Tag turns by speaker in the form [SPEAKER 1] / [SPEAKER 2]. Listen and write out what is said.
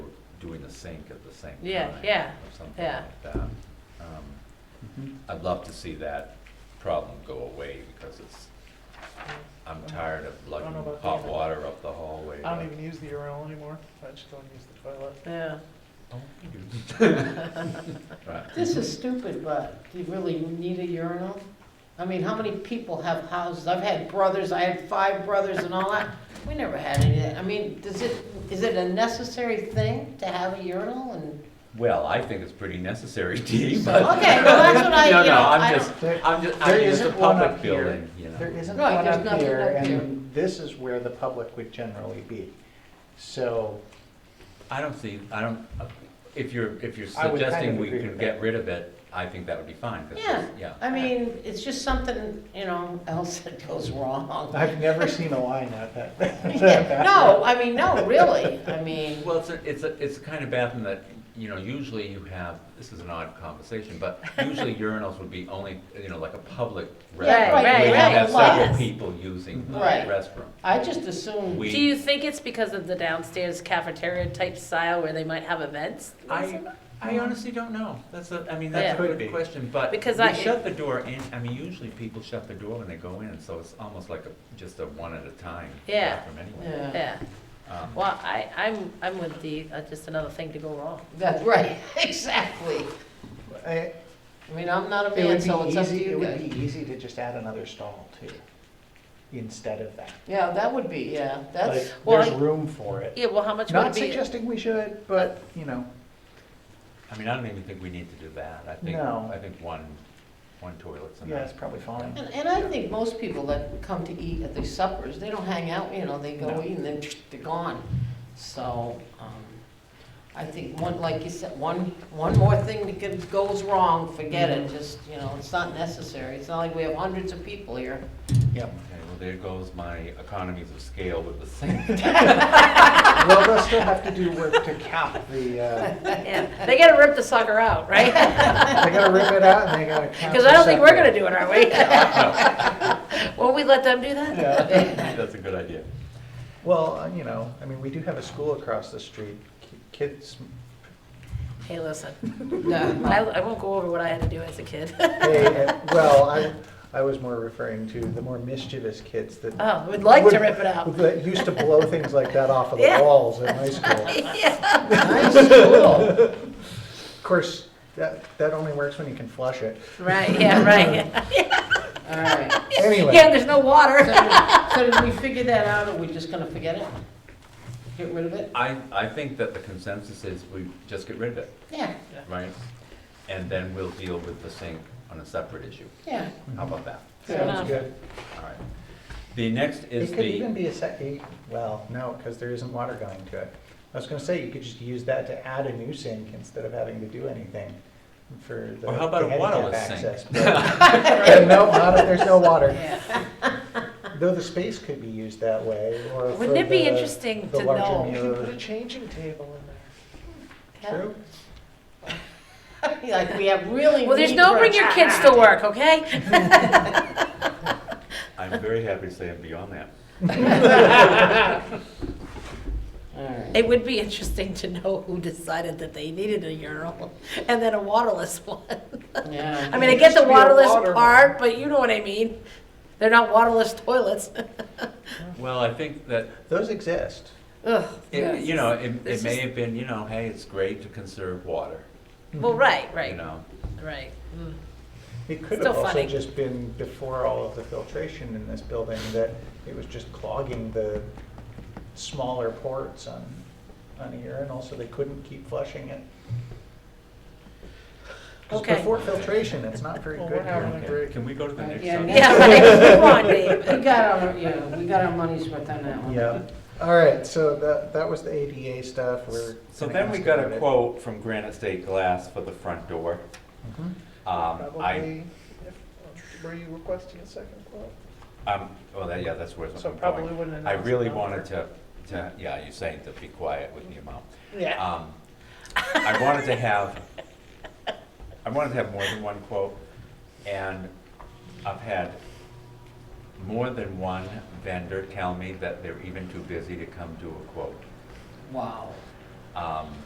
[SPEAKER 1] in the sink at the same time.
[SPEAKER 2] Yeah, yeah,
[SPEAKER 1] Or something
[SPEAKER 2] yeah.
[SPEAKER 1] like that. Um,
[SPEAKER 3] Mm-hmm.
[SPEAKER 4] Mhm.
[SPEAKER 1] I'd love to see that problem go away because it's, I'm tired of lugging
[SPEAKER 5] about
[SPEAKER 1] hot
[SPEAKER 5] that.
[SPEAKER 1] water up the hallway.
[SPEAKER 5] I don't
[SPEAKER 1] like-
[SPEAKER 5] even use the urinal anymore. I just go and use the toilet.
[SPEAKER 2] Yeah.
[SPEAKER 1] Oh, you- Right.
[SPEAKER 3] This is stupid, but do you really need a urinal? I mean, how many people have houses? I've had brothers, I had five brothers and all that. We never had any of that. I mean, does it, is it a necessary thing to have a urinal and?
[SPEAKER 1] Well, I think it's pretty necessary, Dee,
[SPEAKER 3] So,
[SPEAKER 1] but.
[SPEAKER 3] okay, well, that's what I-
[SPEAKER 1] No,
[SPEAKER 3] you
[SPEAKER 1] no,
[SPEAKER 3] know,
[SPEAKER 1] I'm
[SPEAKER 3] I
[SPEAKER 1] just,
[SPEAKER 4] There-
[SPEAKER 1] I'm just, I
[SPEAKER 4] there
[SPEAKER 1] mean, it's a
[SPEAKER 4] isn't one
[SPEAKER 1] public
[SPEAKER 4] up here.
[SPEAKER 1] building, you know.
[SPEAKER 4] There isn't
[SPEAKER 3] Right,
[SPEAKER 4] one
[SPEAKER 3] there's
[SPEAKER 4] up
[SPEAKER 3] nothing
[SPEAKER 4] here,
[SPEAKER 3] up here.
[SPEAKER 4] and this is where the public would generally be. So,
[SPEAKER 1] I don't see, I don't, if you're, if you're
[SPEAKER 4] I would kind
[SPEAKER 1] suggesting
[SPEAKER 4] of
[SPEAKER 1] we
[SPEAKER 4] agree
[SPEAKER 1] can
[SPEAKER 4] with
[SPEAKER 1] get
[SPEAKER 4] that.
[SPEAKER 1] rid of it, I think that would be fine. 'cause
[SPEAKER 3] Yeah,
[SPEAKER 1] it's- Yeah.
[SPEAKER 3] I mean, it's just something, you know, else that goes wrong.
[SPEAKER 4] I've never seen a line out that, that back.
[SPEAKER 3] No, I mean, no, really, I mean,
[SPEAKER 1] Well, it's a, it's a, it's a kind of bathroom that, you know, usually you have, this is an odd conversation, but usually urinals would be only, you know, like a public restroom.
[SPEAKER 2] right,
[SPEAKER 1] Where you
[SPEAKER 2] right,
[SPEAKER 1] have
[SPEAKER 2] right.
[SPEAKER 1] several
[SPEAKER 2] Yes.
[SPEAKER 1] people using the
[SPEAKER 3] Right.
[SPEAKER 1] restroom.
[SPEAKER 3] I just assumed.
[SPEAKER 1] We-
[SPEAKER 2] Do you think it's because of the downstairs cafeteria type style where they might have events?
[SPEAKER 1] I, I honestly don't know. That's a, I mean, that's a
[SPEAKER 4] Yeah.
[SPEAKER 1] good question, but we
[SPEAKER 2] Because I-
[SPEAKER 1] shut the door in, I mean, usually people shut the door when they go in, so it's almost like a, just a one at a time
[SPEAKER 2] Yeah.
[SPEAKER 1] bathroom anyway.
[SPEAKER 4] uh,
[SPEAKER 3] Yeah,
[SPEAKER 2] Yeah,
[SPEAKER 1] Um,
[SPEAKER 2] well, I, I'm, I'm with the, uh, just another thing to go wrong.
[SPEAKER 3] that's right, exactly.
[SPEAKER 4] I-
[SPEAKER 3] I mean, I'm not a
[SPEAKER 4] It
[SPEAKER 3] man,
[SPEAKER 4] would
[SPEAKER 3] so
[SPEAKER 4] be
[SPEAKER 3] it's up to
[SPEAKER 4] easy, it
[SPEAKER 3] you
[SPEAKER 4] would
[SPEAKER 3] guys.
[SPEAKER 4] be easy to just add another stall too, instead of that.
[SPEAKER 3] Yeah, that would be, yeah,
[SPEAKER 4] Like,
[SPEAKER 3] that's,
[SPEAKER 2] well,
[SPEAKER 4] there's
[SPEAKER 2] I-
[SPEAKER 4] room for it.
[SPEAKER 2] Yeah, well, how much would
[SPEAKER 4] Not
[SPEAKER 2] it be?
[SPEAKER 4] suggesting we should, but, you know,
[SPEAKER 1] I mean, I don't even think we need to do that. I think,
[SPEAKER 4] No.
[SPEAKER 1] I think one, one toilet's enough.
[SPEAKER 4] yeah, it's probably fine.
[SPEAKER 3] and, and I think most people that come to eat at the suppers, they don't hang out, you know, they go
[SPEAKER 4] No.
[SPEAKER 3] eat and then they're gone. So, um, I think one, like you said, one, one more thing that could- goes wrong, forget it, just, you know, it's not necessary. It's not like we have hundreds of people here.
[SPEAKER 4] Yep.
[SPEAKER 1] Okay, well, there goes my economies of scale with the sink.
[SPEAKER 4] Well, they'll still have to do work to cap the, uh,
[SPEAKER 2] Yeah, they gotta rip the sucker out, right?
[SPEAKER 4] they gotta rip it out and they gotta count.
[SPEAKER 2] Because I don't think we're gonna
[SPEAKER 4] separate.
[SPEAKER 2] do it, are we? Won't we let them do that?
[SPEAKER 4] Yeah.
[SPEAKER 1] That's a good idea.
[SPEAKER 4] Well, uh, you know, I mean, we do have a school across the street. Ki- Kids,
[SPEAKER 2] Hey, listen,
[SPEAKER 3] No.
[SPEAKER 2] I, I won't go over what I had to do as a kid.
[SPEAKER 4] they, uh, well, I, I was more referring to the more mischievous kids that.
[SPEAKER 2] Oh, would like to rip it out.
[SPEAKER 4] That used to blow things like that off of the
[SPEAKER 2] Yeah.
[SPEAKER 4] walls in high school.
[SPEAKER 3] Nice, cool.
[SPEAKER 4] Of course, that, that only works when you can flush it.
[SPEAKER 2] Right, yeah, right.
[SPEAKER 3] All right.
[SPEAKER 2] Yeah,
[SPEAKER 4] Anyway,
[SPEAKER 2] there's no water.
[SPEAKER 3] So did we figure that out, or we just gonna forget it? Get rid of it?
[SPEAKER 1] I, I think that the consensus is we just get rid of it,
[SPEAKER 3] Yeah,
[SPEAKER 1] right? And then we'll deal with the sink on a separate issue.
[SPEAKER 3] yeah.
[SPEAKER 1] How
[SPEAKER 2] Mm-hmm.
[SPEAKER 1] about that?
[SPEAKER 4] sounds
[SPEAKER 2] enough.
[SPEAKER 4] good.
[SPEAKER 1] All right. The next
[SPEAKER 4] It
[SPEAKER 1] is
[SPEAKER 4] could even
[SPEAKER 1] the,
[SPEAKER 4] be a sec, eh, well, no, because there isn't water going to it. I was gonna say, you could just use that to add a new sink instead of having to do anything for the
[SPEAKER 1] Or how about a
[SPEAKER 4] the handicap
[SPEAKER 1] waterless sink?
[SPEAKER 4] access. But No, not if there's no water.
[SPEAKER 2] Yeah.
[SPEAKER 4] Though the space could be used that way, or for
[SPEAKER 2] Wouldn't it be
[SPEAKER 4] the-
[SPEAKER 2] interesting
[SPEAKER 4] the
[SPEAKER 2] to
[SPEAKER 4] larger
[SPEAKER 2] know?
[SPEAKER 5] You
[SPEAKER 4] meal.
[SPEAKER 5] can put a changing table in there.
[SPEAKER 4] True.
[SPEAKER 3] Like, we have really.
[SPEAKER 2] Well, there's
[SPEAKER 3] need
[SPEAKER 2] no
[SPEAKER 3] for a
[SPEAKER 2] bring your kids to
[SPEAKER 3] child.
[SPEAKER 2] work, okay?
[SPEAKER 1] I'm very happy to say I'm beyond that.
[SPEAKER 3] All right.
[SPEAKER 2] It would be interesting to know who decided that they needed a urinal and then a waterless one.
[SPEAKER 3] Yeah.
[SPEAKER 2] I mean, I get
[SPEAKER 5] Used
[SPEAKER 2] the
[SPEAKER 5] to be a
[SPEAKER 2] waterless
[SPEAKER 5] water-
[SPEAKER 2] part, but you know what I mean. They're not waterless toilets.
[SPEAKER 1] Well, I think that,
[SPEAKER 4] Those exist.
[SPEAKER 2] Ugh.
[SPEAKER 1] it- you know, it, it
[SPEAKER 2] It's
[SPEAKER 1] may
[SPEAKER 2] just-
[SPEAKER 1] have been, you know, hey, it's great to conserve water,
[SPEAKER 2] Well, right,
[SPEAKER 1] you
[SPEAKER 2] right,
[SPEAKER 1] know?
[SPEAKER 2] right. Mm.
[SPEAKER 4] It could
[SPEAKER 2] Still
[SPEAKER 4] have also
[SPEAKER 2] funny.
[SPEAKER 4] just been before all of the filtration in this building that it was just clogging the smaller ports on, on the urinal, so they couldn't keep flushing it. 'Cause
[SPEAKER 2] Okay.
[SPEAKER 4] Before filtration, it's not very
[SPEAKER 5] Well,
[SPEAKER 4] good.
[SPEAKER 5] we're having
[SPEAKER 4] here.
[SPEAKER 5] a great.
[SPEAKER 1] Can we go to the next
[SPEAKER 3] Yeah,
[SPEAKER 1] subject?
[SPEAKER 2] Yeah, right, come on, Dave.
[SPEAKER 3] We got our, yeah, we got our money's worth on that one.
[SPEAKER 4] Yeah, all right, so that, that was the ADA stuff, we're.
[SPEAKER 1] So
[SPEAKER 4] gonna
[SPEAKER 1] then we
[SPEAKER 4] ask
[SPEAKER 1] got
[SPEAKER 4] about
[SPEAKER 1] a
[SPEAKER 4] it.
[SPEAKER 1] quote from Granite State Glass for the front door.
[SPEAKER 4] Mhm.
[SPEAKER 1] Um, I,
[SPEAKER 5] Probably, if- um, were you requesting a second quote?
[SPEAKER 1] um, well, that, yeah, that's where I'm
[SPEAKER 5] So
[SPEAKER 1] going.
[SPEAKER 5] probably wouldn't
[SPEAKER 1] I
[SPEAKER 5] announce
[SPEAKER 1] really
[SPEAKER 5] it now.
[SPEAKER 1] wanted to, to, yeah, you're saying to be quiet with your mouth.
[SPEAKER 5] Yeah.
[SPEAKER 1] Um, I wanted to have, I wanted to have more than one quote, and I've had more than one vendor tell me that they're even too busy to come do a quote.
[SPEAKER 3] Wow.
[SPEAKER 1] Um,